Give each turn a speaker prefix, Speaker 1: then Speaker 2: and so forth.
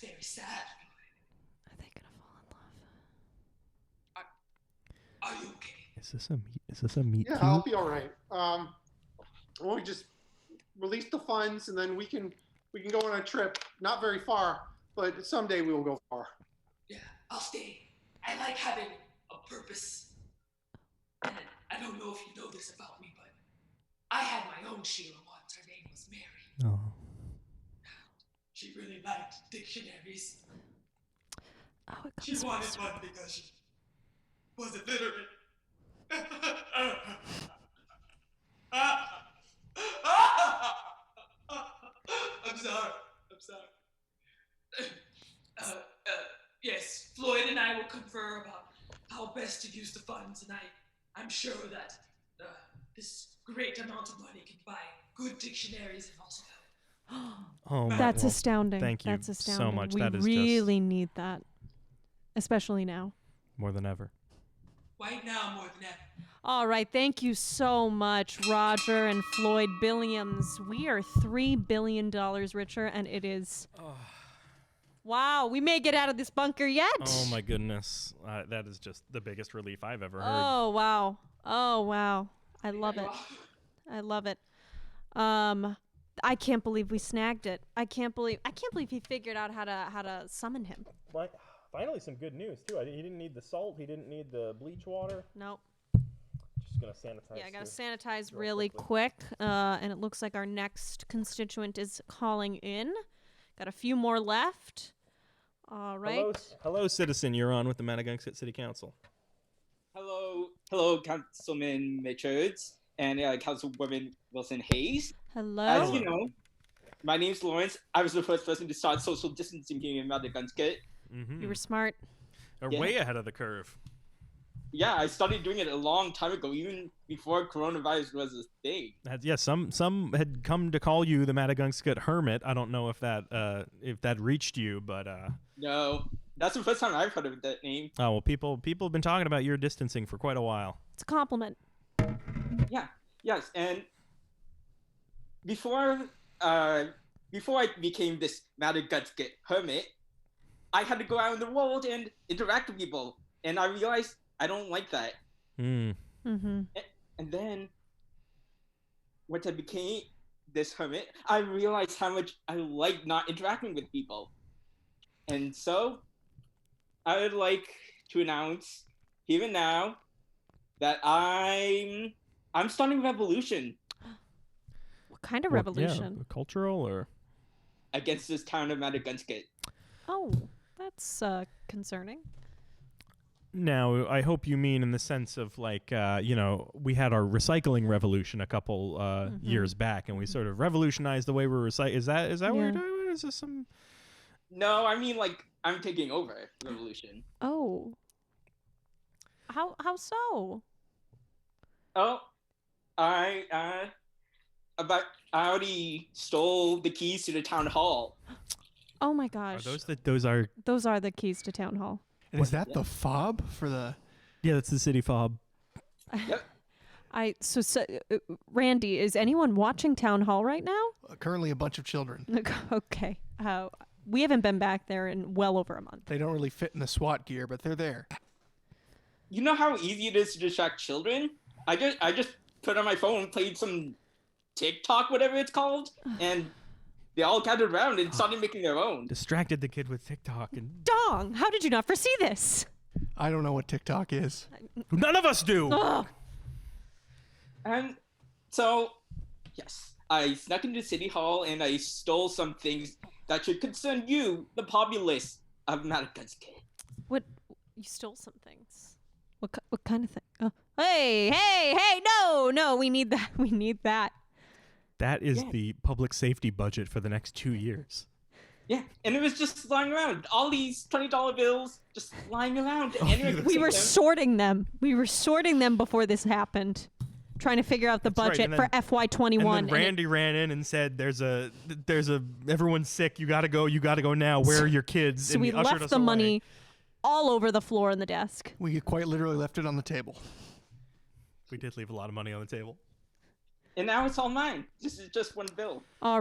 Speaker 1: very sad.
Speaker 2: Are they gonna fall in love?
Speaker 1: Are you okay?
Speaker 3: Is this a meet? Is this a meet?
Speaker 4: Yeah,
Speaker 3: cute?
Speaker 4: I'll be all right. Um, why don't we just release the funds and then we can we can go on a trip. Not very far, but someday we will go far.
Speaker 1: Yeah, I'll stay. I like having a purpose. And I don't know if you know this about me, but I had my own Sheila once. Her name was Mary.
Speaker 3: Oh,
Speaker 1: She really liked dictionaries.
Speaker 2: Oh, it
Speaker 1: She
Speaker 2: comes
Speaker 1: wanted
Speaker 2: first.
Speaker 1: one because she was illiterate. I'm sorry. I'm sorry. Uh, uh, yes, Floyd and I will confer about how best to use the funds, and I, I'm sure that uh, this great amount of money can buy good dictionaries and also help.
Speaker 3: oh my
Speaker 2: That's
Speaker 3: well,
Speaker 2: astounding.
Speaker 3: thank you
Speaker 2: That's
Speaker 3: so
Speaker 2: astounding.
Speaker 3: much.
Speaker 2: We
Speaker 3: That is just-
Speaker 2: really need that, especially now.
Speaker 3: more than ever.
Speaker 1: Right now, more than ever.
Speaker 2: All right, thank you so much, Roger and Floyd Billiams. We are three billion dollars richer, and it is wow. We may get out of this bunker yet.
Speaker 3: Oh my goodness, uh, that is just the biggest relief I've ever heard.
Speaker 2: Oh wow. Oh wow. I love it. I love it. Um, I can't believe we snagged it. I can't believe I can't believe he figured out how to how to summon him.
Speaker 5: My, finally, some good news too. I, he didn't need the salt. He didn't need the bleach water.
Speaker 2: Nope.
Speaker 5: Just gonna sanitize.
Speaker 2: Yeah, I gotta
Speaker 5: this.
Speaker 2: sanitize really quick. Uh, and it looks like our next constituent is calling in. Got a few more left. All right.
Speaker 5: Hello, s-
Speaker 3: Hello, citizen. You're on with the Madagungscut City Council.
Speaker 6: Hello, hello, Councilman Richards and uh, Councilwoman Wilson Hayes. As
Speaker 2: Hello.
Speaker 6: you know, my name's Lawrence. I was the first person to start social distancing here in Madagascar.
Speaker 3: Mm-hmm.
Speaker 2: You were smart.
Speaker 3: Are
Speaker 6: yeah.
Speaker 3: way ahead of the curve.
Speaker 6: Yeah, I started doing it a long time ago, even before coronavirus was a thing.
Speaker 3: That, yeah, some some had come to call you the Madagungscut Hermit. I don't know if that uh, if that reached you, but uh,
Speaker 6: No, that's the first time I've heard of that name.
Speaker 3: oh well, people people have been talking about your distancing for quite a while.
Speaker 2: It's a compliment.
Speaker 6: Yeah, yes, and before uh, before I became this Madagascar hermit, I had to go out in the world and interact with people, and I realized I don't like that.
Speaker 3: Mm.
Speaker 2: Mm-hmm.
Speaker 6: And then, once I became this hermit, I realized how much I like not interacting with people. And so, I would like to announce here and now that I'm I'm starting a revolution
Speaker 2: What kind of
Speaker 3: Well, yeah,
Speaker 2: revolution?
Speaker 3: cultural or
Speaker 6: against this town of Madagascar.
Speaker 2: Oh, that's uh, concerning.
Speaker 3: Now, I hope you mean in the sense of like, uh, you know, we had our recycling revolution a couple uh,
Speaker 2: Mm-hmm.
Speaker 3: years back, and we sort of revolutionized the way we're recycling. Is that is that what
Speaker 2: Yeah.
Speaker 3: you're doing? Is this some?
Speaker 6: No, I mean like I'm taking over revolution.
Speaker 2: Oh. How how so?
Speaker 6: Oh, I uh, about I already stole the keys to the town hall.
Speaker 2: Oh my
Speaker 3: Are
Speaker 2: gosh.
Speaker 3: those the, those are?
Speaker 2: Those are the keys to town hall.
Speaker 7: And is that the fob for the?
Speaker 3: Yeah, that's the city fob.
Speaker 2: I so, so uh, Randy, is anyone watching town hall right now?
Speaker 7: Currently, a bunch of children.
Speaker 2: okay. Uh, we haven't been back there in well over a month.
Speaker 7: They don't really fit in the SWAT gear, but they're there.
Speaker 6: You know how easy it is to distract children? I just I just put on my phone and played some TikTok, whatever it's called, and they all gathered around and started making their own.
Speaker 3: Distracted the kid with TikTok, and
Speaker 2: Dong, how did you not foresee this?
Speaker 7: I don't know what TikTok is.
Speaker 3: none of us do.
Speaker 2: Ugh.
Speaker 6: And so, yes, I snuck into City Hall and I stole some things that should concern you, the populace of Madagascar.
Speaker 2: What? You stole some things. What? ki- What kind of thing? Oh. Hey, hey, hey! No, no, we need that. We need that.
Speaker 3: That is the public safety budget for the next two years.
Speaker 6: Yeah, and it was just lying around. All these twenty dollar bills just lying around. and anyone could
Speaker 2: Oh, We
Speaker 6: take
Speaker 2: were
Speaker 6: them.
Speaker 2: sorting them. We were sorting them before this happened, trying to figure out the
Speaker 3: right,
Speaker 2: budget
Speaker 3: and
Speaker 2: for FY twenty
Speaker 3: And
Speaker 2: one.
Speaker 3: then Randy ran in and said, "There's a, there's a, everyone's sick. You gotta go. You gotta go now. Where are your kids?"
Speaker 2: So
Speaker 3: and
Speaker 2: we
Speaker 3: he ushered
Speaker 2: left
Speaker 3: us
Speaker 2: the
Speaker 3: away.
Speaker 2: money all over the floor and the desk.
Speaker 7: We quite literally left it on the table.
Speaker 3: We did leave a lot of money on the table.
Speaker 6: And now it's all mine. This is just one bill.
Speaker 2: All